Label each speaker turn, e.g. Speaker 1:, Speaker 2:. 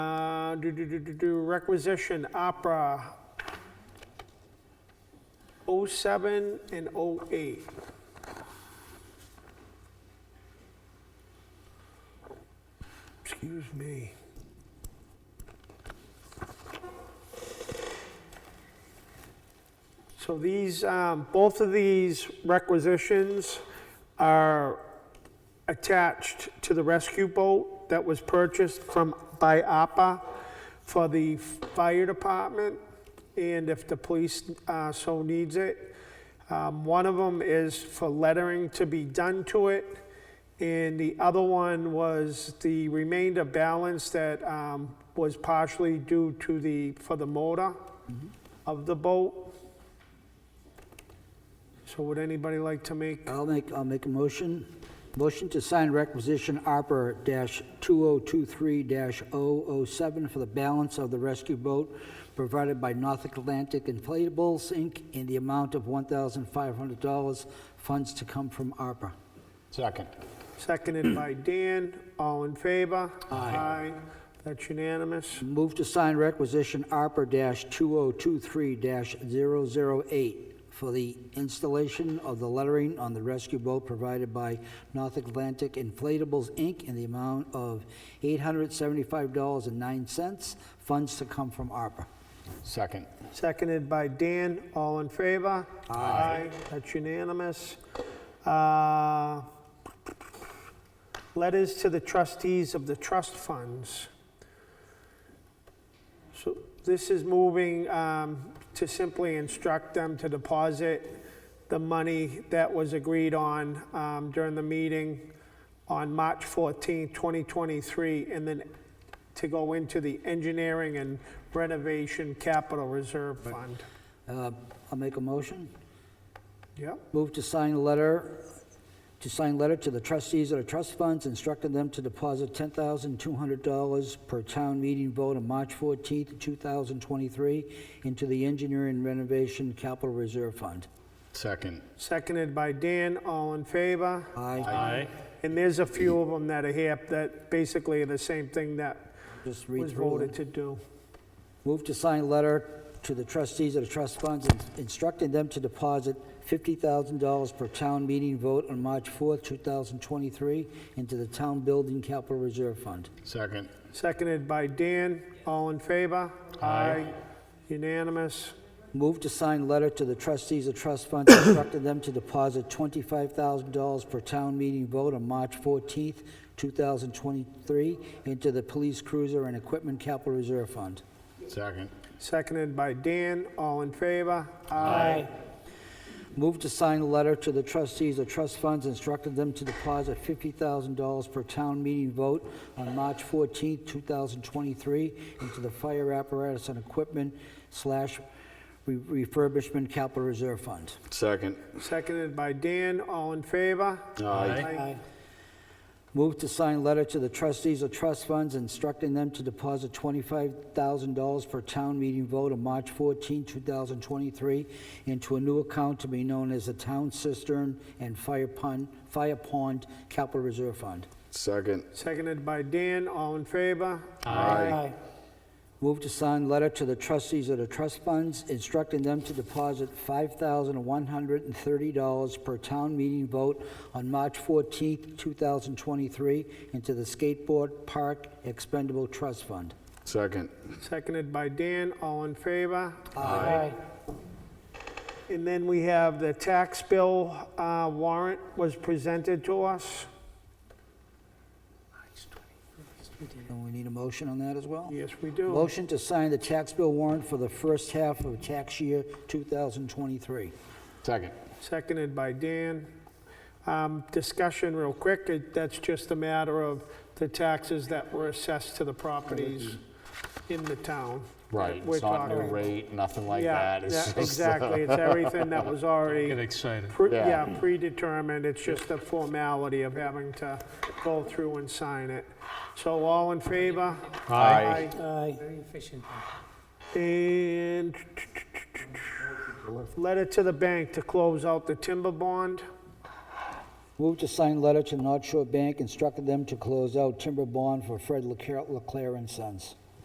Speaker 1: Uh, do, do, do, do, do, requisition, opera, 07 and 08. Excuse me. So these, um, both of these requisitions are attached to the rescue boat that was purchased from, by APA for the fire department, and if the police uh, so needs it. Um, One of them is for lettering to be done to it, and the other one was the remainder balance that um, was partially due to the, for the motor of the boat. So would anybody like to make
Speaker 2: I'll make, I'll make a motion. Motion to sign requisition ARPA-2023-007 for the balance of the rescue boat provided by North Atlantic Inflatables, Inc., in the amount of $1,500, funds to come from ARPA.
Speaker 3: Second.
Speaker 1: Seconded by Dan. All in favor? Aye. That's unanimous.
Speaker 2: Move to sign requisition ARPA-2023-008 for the installation of the lettering on the rescue boat provided by North Atlantic Inflatables, Inc., in the amount of $875.09, funds to come from ARPA.
Speaker 3: Second.
Speaker 1: Seconded by Dan. All in favor? Aye. That's unanimous. Uh, Letters to the trustees of the trust funds. So this is moving um, to simply instruct them to deposit the money that was agreed on um, during the meeting on March 14, 2023, and then to go into the engineering and renovation capital reserve fund.
Speaker 2: Uh, I'll make a motion.
Speaker 1: Yep,
Speaker 2: Move to sign a letter, to sign letter to the trustees of the trust funds instructing them to deposit $10,200 per town meeting vote on March 14th, 2023 into the Engineering Renovation Capital Reserve Fund.
Speaker 3: Second.
Speaker 1: seconded by Dan, all in favor?
Speaker 2: Aye.
Speaker 3: Aye.
Speaker 1: And there's a few of them that are here that basically are the same thing that
Speaker 2: Just read
Speaker 1: was
Speaker 2: through
Speaker 1: voted
Speaker 2: it.
Speaker 1: to do.
Speaker 2: Move to sign letter to the trustees of the trust funds instructing them to deposit $50,000 per town meeting vote on March 4th, 2023 into the Town Building Capital Reserve Fund.
Speaker 3: Second.
Speaker 1: Seconded by Dan, all in favor? Aye. Unanimous.
Speaker 2: Move to sign letter to the trustees of trust funds instructing them to deposit $25,000 per town meeting vote on March 14th, 2023, into the police cruiser and equipment capital reserve fund.
Speaker 3: Second.
Speaker 1: Seconded by Dan, all in favor? Aye.
Speaker 2: Move to sign letter to the trustees of trust funds instructing them to deposit $50,000 per town meeting vote on March 14th, 2023, into the fire apparatus and equipment slash re- refurbishment capital reserve fund.
Speaker 3: Second.
Speaker 1: Seconded by Dan, all in favor? Aye.
Speaker 2: Move to sign letter to the trustees of trust funds instructing them to deposit $25,000 per town meeting vote on March 14, 2023, into a new account to be known as the Town Cistern and Fire Pond, Fire Pond Capital Reserve Fund.
Speaker 3: Second.
Speaker 1: Seconded by Dan, all in favor?
Speaker 3: Aye.
Speaker 2: Move to sign letter to the trustees of the trust funds instructing them to deposit $5,130 per town meeting vote on March 14, 2023, into the Skateboard Park Expendable Trust Fund.
Speaker 3: Second.
Speaker 1: Seconded by Dan, all in favor? Aye. And then we have the tax bill uh, warrant was presented to us.
Speaker 2: And we need a motion on that as well?
Speaker 1: Yes, we do.
Speaker 2: Motion to sign the tax bill warrant for the first half of tax year 2023.
Speaker 3: Second.
Speaker 1: Seconded by Dan. Um, Discussion real quick, It- that's just a matter of the taxes that were assessed to the properties in the town.
Speaker 3: Right.
Speaker 1: We're
Speaker 3: It's not new
Speaker 1: talking-
Speaker 3: rate, nothing like
Speaker 1: Yeah,
Speaker 3: that. It's
Speaker 1: yeah,
Speaker 3: just, uh,
Speaker 1: exactly, it's everything that was already.
Speaker 4: Get excited.
Speaker 1: Pre- Yeah,
Speaker 3: Yeah.
Speaker 1: predetermined, it's just a formality of having to go through and sign it. So all in favor?
Speaker 3: Aye.
Speaker 2: Aye.
Speaker 5: Very efficient.
Speaker 1: And letter to the bank to close out the timber bond.
Speaker 2: Move to sign letter to North Shore Bank instructing them to close out timber bond for Fred Leclerc Leclerc and Sons.